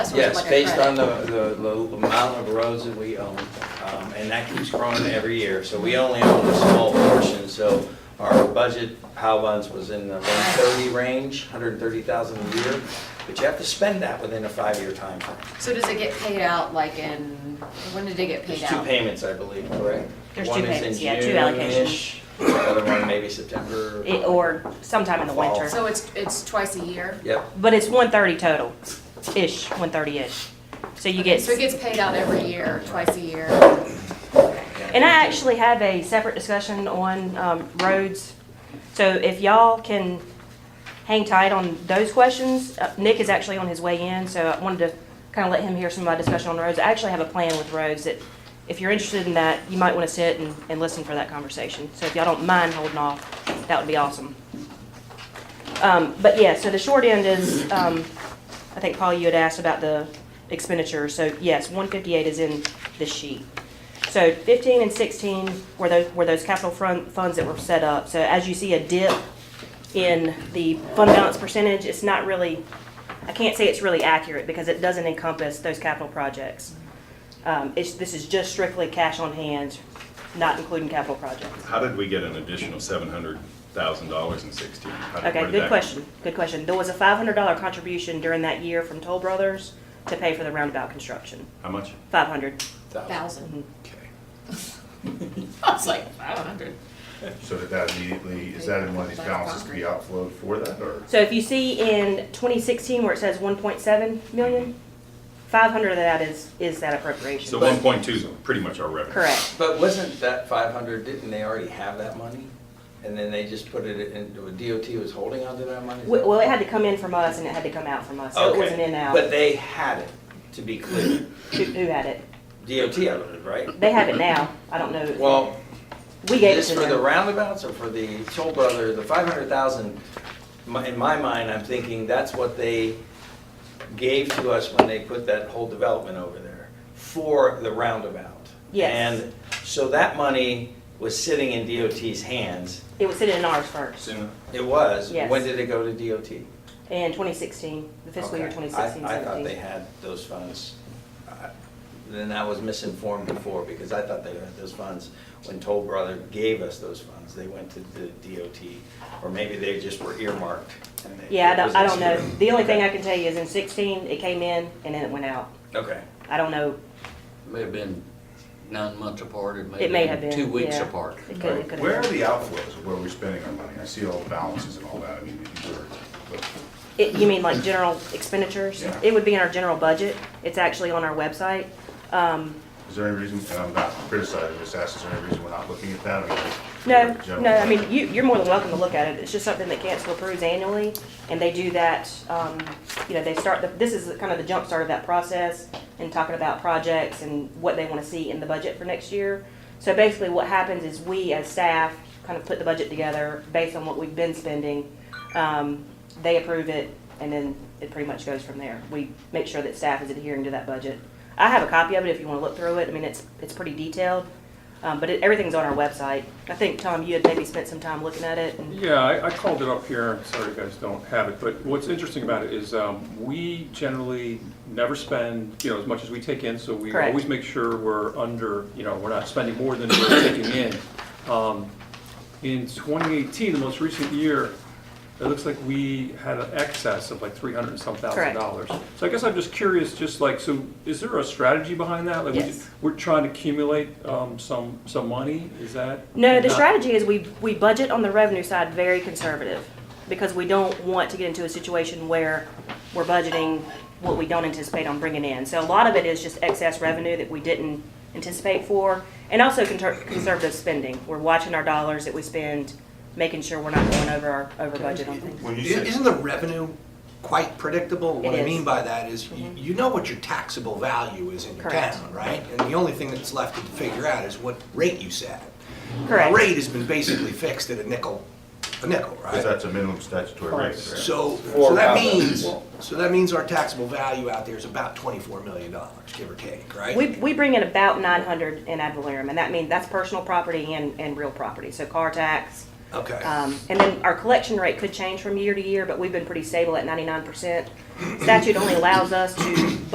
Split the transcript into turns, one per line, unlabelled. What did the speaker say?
That's what I'm
Yes,
looking
based
for.
on the, the the amount of roads that we own, um, and that keeps growing every year. So we only own a small portion, so our budget POW funds was in the 130 range, 130,000 a year, but you have to spend that within a five-year timeframe.
So does it get paid out like in, when did it get paid
There's two
out?
payments, I believe, correct?
There's two payments, yeah, two allocations.
One is in June-ish, the other one maybe September.
It- Or sometime in the winter.
So it's, it's twice a year?
Yep,
But it's one thirty total, ish, one thirty-ish. So you get,
So it gets paid out every year, twice a year?
and I actually have a separate discussion on, um, roads. So if y'all can hang tight on those questions, uh, Nick is actually on his way in, so I wanted to kind of let him hear some of my discussion on roads. I actually have a plan with roads that, if you're interested in that, you might want to sit and, and listen for that conversation. So if y'all don't mind holding off, that would be awesome. Um, but yeah, so the short end is, um, I think Paul, you had asked about the expenditure, so yes, one fifty-eight is in the sheet. So fifteen and sixteen were those, were those capital front, funds that were set up, so as you see a dip in the fund balance percentage, it's not really, I can't say it's really accurate, because it doesn't encompass those capital projects. Um, it's, this is just strictly cash on hand, not including capital projects.
How did we get an additional seven hundred thousand dollars in sixteen? How did- where
Okay,
did
good
that-
question, good question. There was a five hundred dollar contribution during that year from Toll Brothers to pay for the roundabout construction,
How much?
five hundred.
Thousand.
Okay.
I was like, five hundred.
So did that immediately, is that in one of these balances to be outflowed for that, or?
So if you see in twenty sixteen where it says one point seven million, five hundred of that is, is that appropriation.
So one point two is pretty much our revenue.
Correct.
But wasn't that five hundred, didn't they already have that money? And then they just put it into, DOT was holding onto that money? Is
W-
that-
Well, it had to come in from us and it had to come out from us, so it
Okay.
wasn't in out.
But they had it, to be clear.
Who, who had it?
DOT had it, right?
They have it now. I don't know.
Well,
We gave it
this
to
for the
them.
roundabouts or for the toll brother, the five hundred thousand, in my mind, I'm thinking that's what they gave to us when they put that whole development over there for the roundabout.
Yes.
And so that money was sitting in DOT's hands.
It was sitting in ours first
Soon.
It was.
Yes.
When did it go to DOT?
in twenty sixteen, the fiscal year
Okay.
twenty sixteen,
I-
seventeen.
I thought they had those funds. I- Then I was misinformed before because I thought they had those funds when Toll Brother gave us those funds. They went to the DOT, or maybe they just were earmarked. and they-
Yeah, I
it
don't, I don't
wasn't
know. The only thing I
Okay.
can tell you is in sixteen, it came in and then it went out.
Okay.
I don't know,
May have been nine months apart, it may
it may have been.
two weeks
yeah.
apart.
It could, it could
Where are
have been.
the outflows of where we're spending our money? I see all the balances and all that, I mean, if you were, but
It- You mean like general expenditures?
Yeah.
It would be in our general budget. It's actually on our website. Um,
is there any reason, and I'm not criticizing, just ask, is there any reason we're not looking at that? I mean, like,
No,
general-
no, I mean, you, you're more than welcome to look at it. It's just something that council approves annually, and they do that, um, you know, they start, the- this is kind of the jumpstart of that process, and talking about projects and what they wanna see in the budget for next year. So basically, what happens is we, as staff, kind of put the budget together based on what we've been spending. Um, they approve it, and then it pretty much goes from there. We make sure that staff is adhering to that budget. I have a copy of it if you wanna look through it. I mean, it's, it's pretty detailed. Um, but it, everything's on our website. I think, Tom, you had maybe spent some time looking at it. and-
Yeah, I, I called it up here, sorry you guys don't have it, but what's interesting about it is, um, we generally never spend, you know, as much as we take in, so we
Correct.
always make sure we're under, you know, we're not spending more than we're taking in. Um, in twenty eighteen, the most recent year, it looks like we had an excess of like three hundred and some thousand
Correct.
dollars. So I guess I'm just curious, just like, so is there a strategy behind that? Like, we-
Yes.
We're trying to accumulate, um, some, some money, is that?
No, the
not-
strategy is we, we budget on the revenue side very conservative because we don't want to get into a situation where we're budgeting what we don't anticipate on bringing in. So a lot of it is just excess revenue that we didn't anticipate for and also conter- conservative spending. We're watching our dollars that we spend, making sure we're not going over our, over budget on things.
When you
I-
say,
Isn't the revenue quite predictable? What
It is.
I
Mm-hmm.
mean by that is, you you know what your taxable value is in your
Correct.
town, right? And the only thing that's left to figure out is what rate you set.
Correct.
The rate has been basically fixed at a nickel, a nickel,
because
right?
that's a minimum statutory rate, correct?
So,
Four
so that
pound
means,
level.
so that means our taxable value out there is about twenty-four million dollars, give or take, right?
We, we bring in about nine hundred in ad valorem, and that means that's personal property and, and real property, so car tax.
Okay.
Um, and then our collection rate could change from year to year, but we've been pretty stable at ninety-nine percent. Statute only allows us to